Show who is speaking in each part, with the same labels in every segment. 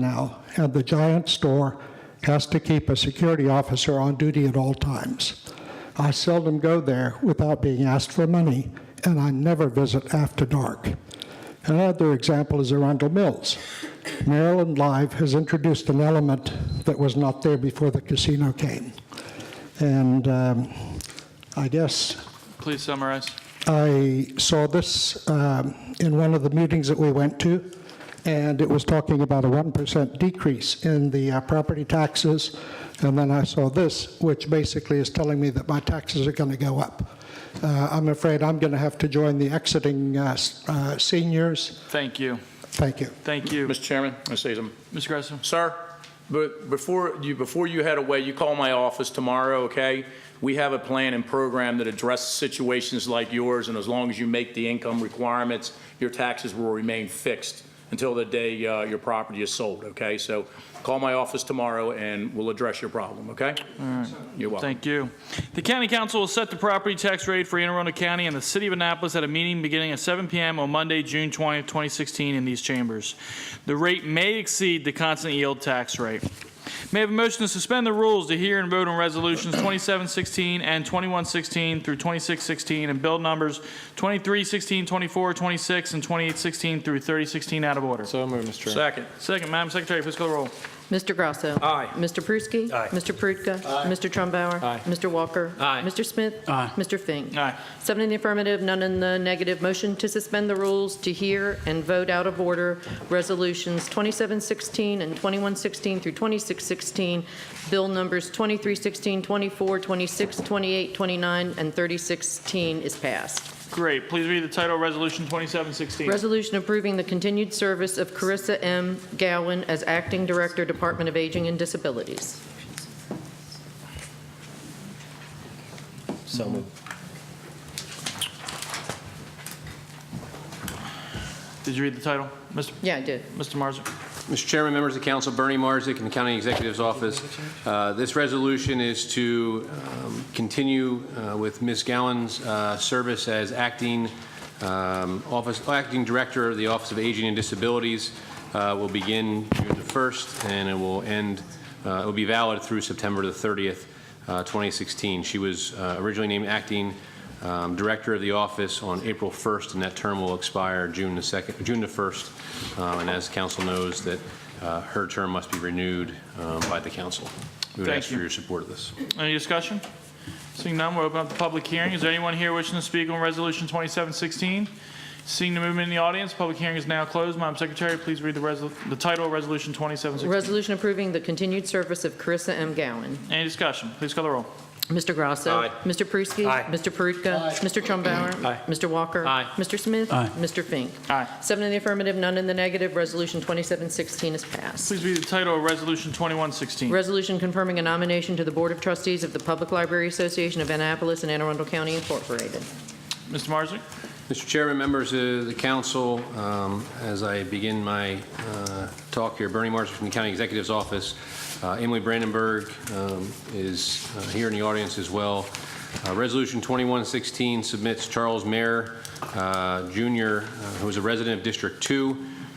Speaker 1: now, and the giant store has to keep a security officer on duty at all times. I seldom go there without being asked for money, and I never visit after dark. Another example is Arundel Mills. Maryland Live has introduced an element that was not there before the casino came. And um, I guess
Speaker 2: Please summarize.
Speaker 1: I saw this um, in one of the meetings that we went to, and it was talking about a 1% decrease in the uh, property taxes. And then I saw this, which basically is telling me that my taxes are going to go up. Uh, I'm afraid I'm going to have to join the exiting uh, s- uh, seniors.
Speaker 2: Thank you.
Speaker 1: Thank you.
Speaker 2: Thank you.
Speaker 3: Mr. Chairman, Ms. Eastham.
Speaker 2: Mr. Gressel?
Speaker 3: Sir, but before you, before you head away, you call my office tomorrow, okay? We have a plan and program that addresses situations like yours, and as long as you make the income requirements, your taxes will remain fixed until the day uh, your property is sold, okay? So call my office tomorrow, and we'll address your problem, okay? You're welcome.
Speaker 2: Thank you. The county council will set the property tax rate for Anne Arundel County and the city of Annapolis at a meeting beginning at 7 PM on Monday, June 20th, 2016, in these chambers. The rate may exceed the constant yield tax rate. May I have a motion to suspend the rules to hear and vote on resolutions 2716 and 2116 through 2616 and bill numbers 2316, 24, 26, and 2816 through 3016 out of order.
Speaker 4: So moved, Mr. Chairman.
Speaker 3: Second.
Speaker 2: Second, Madam Secretary, please call the roll.
Speaker 5: Mr. Grasso.
Speaker 3: Aye.
Speaker 5: Mr. Pruski.
Speaker 3: Aye.
Speaker 5: Mr. Perutka. Mr. Trumpbauer.
Speaker 4: Aye.
Speaker 5: Mr. Walker.
Speaker 3: Aye.
Speaker 5: Mr. Smith.
Speaker 2: Aye.
Speaker 5: Mr. Fink.
Speaker 2: Aye.
Speaker 5: Seven in the affirmative, none in the negative. Motion to suspend the rules to hear and vote out of order resolutions 2716 and 2116 through 2616, bill numbers 2316, 24, 26, 28, 29, and 3016 is passed.
Speaker 2: Great. Please read the title, of Resolution 2716.
Speaker 5: Resolution approving the continued service of Carissa M. Gowen as Acting Director, Department of Aging and Disabilities.
Speaker 6: So moved.
Speaker 2: Did you read the title? Mr.
Speaker 5: Yeah, I did.
Speaker 2: Mr. Marzick?
Speaker 4: Mr. Chairman, members of the council, Bernie Marzick in the County Executive's Office. Uh, This resolution is to um, continue uh, with Ms. Gowan's uh, service as acting um, office, acting director of the Office of Aging and Disabilities. Uh, Will begin June the 1st, and it will end, uh, it will be valid through September the 30th, uh, 2016. She was uh, originally named acting um, director of the office on April 1st, and that term will expire June the 2nd, June the 1st. Um, And as council knows, that uh, her term must be renewed um, by the council. We would
Speaker 2: Thank
Speaker 4: ask for
Speaker 2: you.
Speaker 4: your support of this.
Speaker 2: Any discussion? Seeing none, we'll open up the public hearing. Is there anyone here wishing to speak on Resolution 2716? Seeing the movement in the audience, public hearing is now closed. Madam Secretary, please read the resol- the title, of Resolution 2716.
Speaker 5: Resolution approving the continued service of Carissa M. Gowen.
Speaker 2: Any discussion? Please call the roll.
Speaker 5: Mr. Grasso.
Speaker 3: Aye.
Speaker 5: Mr. Pruski.
Speaker 3: Aye.
Speaker 5: Mr. Perutka. Mr. Trumpbauer.
Speaker 3: Aye.
Speaker 5: Mr. Walker.
Speaker 3: Aye.
Speaker 5: Mr. Smith. Mr. Fink.
Speaker 2: Aye.
Speaker 5: Seven in the affirmative, none in the negative. Resolution 2716 is passed.
Speaker 2: Please read the title, of Resolution 2116.
Speaker 5: Resolution confirming a nomination to the Board of Trustees of the Public Library Association of Annapolis and Anne Arundel County Incorporated.
Speaker 2: Mr. Marzick?
Speaker 4: Mr. Chairman, members of the council, um, as I begin my uh, talk here, Bernie Marshall from the County Executive's Office, Uh, Emily Brandenburg um, is uh, here in the audience as well. Uh, Resolution 2116 submits Charles Mayer uh, Jr., uh, who is a resident of District 2,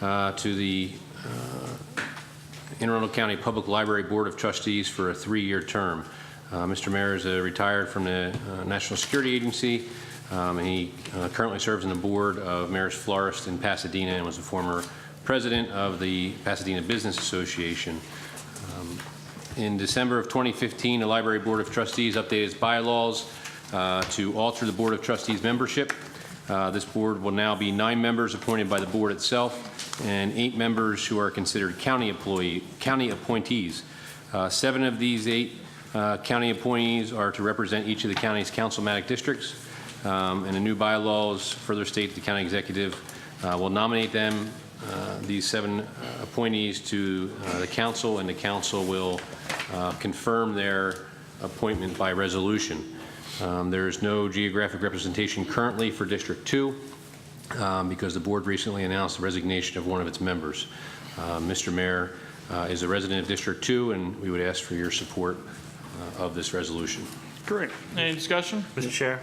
Speaker 4: uh, to the Anne Arundel County Public Library Board of Trustees for a three-year term. Uh, Mr. Mayor is uh, retired from the uh, National Security Agency, um, and he uh, currently serves on the board of Mayor's Florist in Pasadena and was a former president of the Pasadena Business Association. In December of 2015, the Library Board of Trustees updated its bylaws uh, to alter the Board of Trustees membership. Uh, This board will now be nine members appointed by the board itself and eight members who are considered county employee, county appointees. Uh, Seven of these eight uh, county appointees are to represent each of the county's councilmatic districts. Um, And the new bylaws further state the county executive uh, will nominate them, uh, these seven uh, appointees to uh, the council, and the council will uh, confirm their appointment by resolution. Um, There is no geographic representation currently for District 2 um, because the board recently announced the resignation of one of its members. Uh, Mr. Mayor uh, is a resident of District 2, and we would ask for your support uh, of this resolution.
Speaker 2: Great. Any discussion?
Speaker 6: Mr. Chair,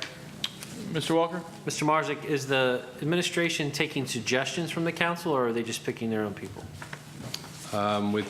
Speaker 2: Mr. Walker?
Speaker 6: Mr. Marzick, is the administration taking suggestions from the council, or are they just picking their own people?
Speaker 4: Uh, um, with